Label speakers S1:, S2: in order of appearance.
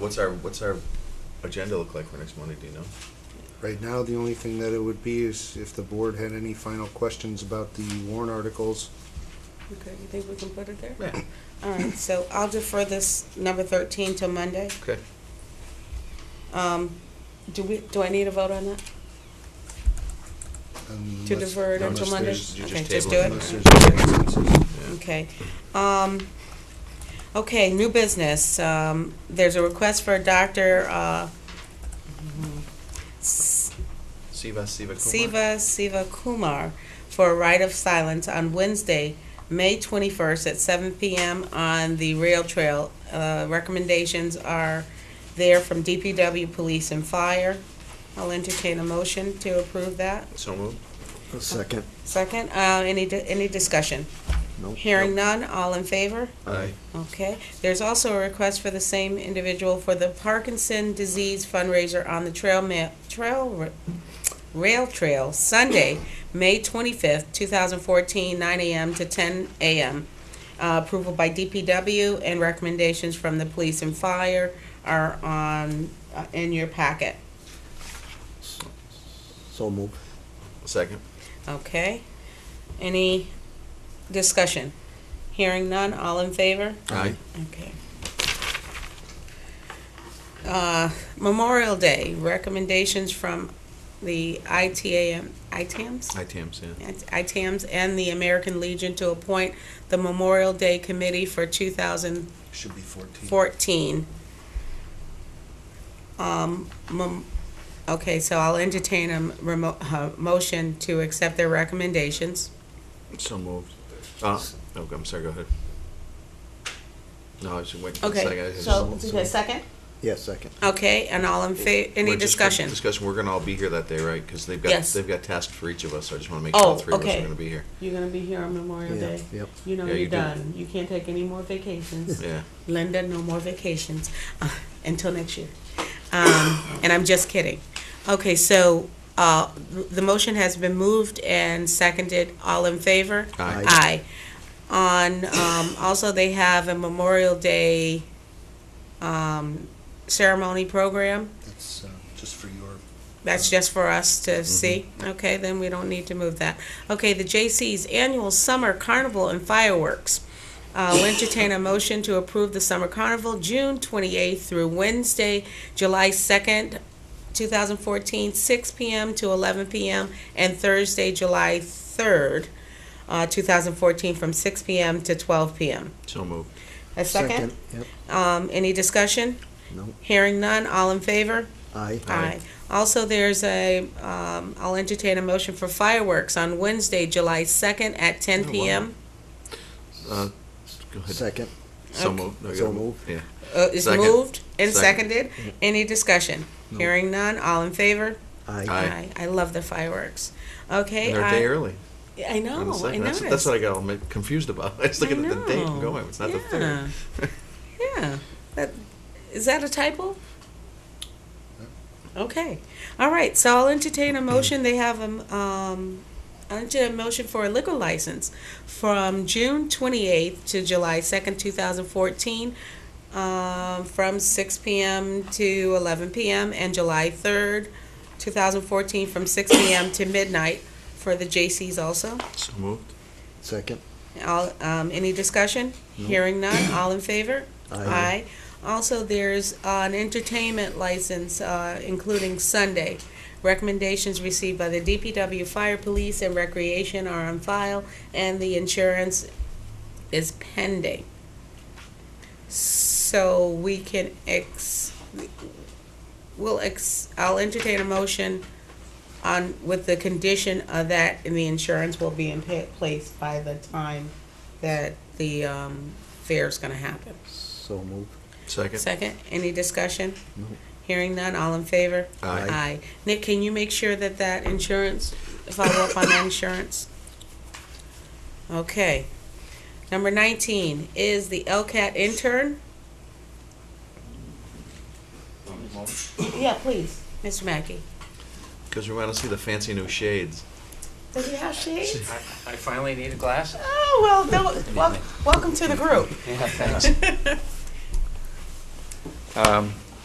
S1: What's our, what's our agenda look like for next Monday, do you know?
S2: Right now, the only thing that it would be is if the board had any final questions about the warrant articles.
S3: Okay, you think we can put it there?
S1: Yeah,
S3: All right, so I'll defer this number thirteen till Monday.
S1: okay.
S3: Um, do we, do I need a vote on that? To
S2: unless-
S3: defer it
S1: No,
S3: until
S1: just-
S3: Monday?
S1: just- you
S3: Okay,
S1: just
S3: just do
S1: table it.
S3: it?
S2: Unless there's-
S1: Yeah.
S3: Okay. Um, okay, new business. Um, there's a request for Dr. uh, S-
S1: Siva, Siva Kumar?
S3: Siva, Siva Kumar for a right of silence on Wednesday, May 21st at 7 PM on the rail trail. Uh, Recommendations are there from DPW, police, and fire. I'll entertain a motion to approve that.
S1: So moved.
S4: A second.
S3: Second, uh, any, di- any discussion?
S4: Nope.
S3: Hearing none, all in favor?
S1: Aye.
S3: Okay, there's also a request for the same individual for the Parkinson Disease fundraiser on the trail ma- trail, r- rail trail, Sunday, May twenty-fifth, two thousand fourteen, nine AM to ten AM. Uh, approval by DPW and recommendations from the police and fire are on, uh, in your packet,
S4: So move.
S1: Second.
S3: okay? Any discussion? Hearing none, all in favor?
S1: Aye.
S3: Okay. Uh, Memorial Day, recommendations from the ITAM, ITAMs?
S1: Aye, Tams, yeah.
S3: ITAMs and the American Legion to appoint the Memorial Day Committee for 2014.
S2: Should be fourteen.
S3: Um, mem- Okay, so I'll entertain a m- remo- uh, motion to accept their recommendations.
S1: So moved. Uh, oh, I'm sorry, go ahead. No, I was just waiting for a second. I
S3: Okay,
S1: just-
S3: so, second?
S4: Yeah, second.
S3: Okay, and all in fa,
S1: We're
S3: any
S1: just gonna-
S3: discussion?
S1: Discussion, we're gonna all be here that day, right? Because they've got,
S3: Yes.
S1: they've got tasks for each of us, so I just wanna make sure all
S3: Oh,
S1: three of us
S3: okay.
S1: are gonna be here.
S3: You're gonna be here on Memorial
S4: Yeah,
S3: Day.
S4: yep.
S3: You know
S1: Yeah,
S3: you're
S1: you do.
S3: done. You can't take any more vacations.
S1: Yeah,
S3: Linda, no more vacations uh, until next year. Um, and I'm just kidding. Okay, so uh, the motion has been moved and seconded. All in favor?
S1: aye.
S3: Aye. On, um, also, they have a Memorial Day um, ceremony program.
S2: That's uh, just for your
S3: That's just for us to see? Okay, then we don't need to move that. Okay, the J.C.'s annual summer carnival and fireworks. I'll entertain a motion to approve the summer carnival, June 28th through Wednesday, July 2nd, 2014, 6 p.m. to 11 p.m., and Thursday, July 3rd, uh, 2014, from 6 p.m. to 12 p.m.
S1: So moved.
S3: A second?
S4: Yep.
S3: Um, Any discussion?
S4: Nope.
S3: Hearing none, all in favor?
S4: Aye.
S1: Aye.
S3: Aye. Also, there's a, um, I'll entertain a motion for fireworks on Wednesday, July second at ten
S1: Oh, wow.
S3: PM.
S1: Uh, Go ahead.
S4: Second.
S1: So
S3: Okay.
S1: moved. No, you
S4: So
S1: gotta-
S4: moved.
S1: Yeah.
S3: Uh, is
S1: Second.
S3: moved and
S1: Second. Mm-hmm.
S3: seconded. Any discussion? Hearing none, all in favor?
S4: Aye.
S1: Aye.
S3: I love the fireworks. Okay.
S1: And they're a
S3: I-
S1: day early.
S3: I know,
S1: on the
S3: I
S1: second.
S3: know.
S1: That's, that's what I got all mi- confused about. I was
S3: I
S1: looking at the date
S3: know.
S1: and going, it's not the third.
S3: Yeah, that, is that a typo? Okay, all right, so I'll entertain a motion, they have, a, um, I'll entertain a motion for a liquor license from June twenty-eighth to July second, two thousand fourteen, um, from six PM to eleven PM, and July third, two thousand fourteen, from six PM to midnight for the J.C.'s also.
S1: So moved.
S4: Second.
S3: All, um, any discussion? Hearing none, all in favor?
S4: Aye.
S3: Also, there's uh, an entertainment license, uh, including Sunday. Recommendations received by the DPW, Fire Police, and Recreation are on file, and the insurance is pending. So we can ex, we'll ex, I'll entertain a motion on, with the condition of that, and the insurance will be in pa- place by the time that the, um, fair's gonna happen.
S4: So move.
S1: Second.
S3: Second, any discussion?
S4: No.
S3: Hearing none, all in favor?
S1: Aye.
S3: Aye. Nick, can you make sure that that insurance, follow up on that insurance? Okay. Number nineteen is the LCAT intern. Yeah, please, Mr. Mackey.
S1: Because we want to see the fancy new shades.
S3: Does he have shades?
S5: I, I finally need a glass.
S3: Oh, well, no, wel- welcome to the group.
S5: Yeah, thanks. Um,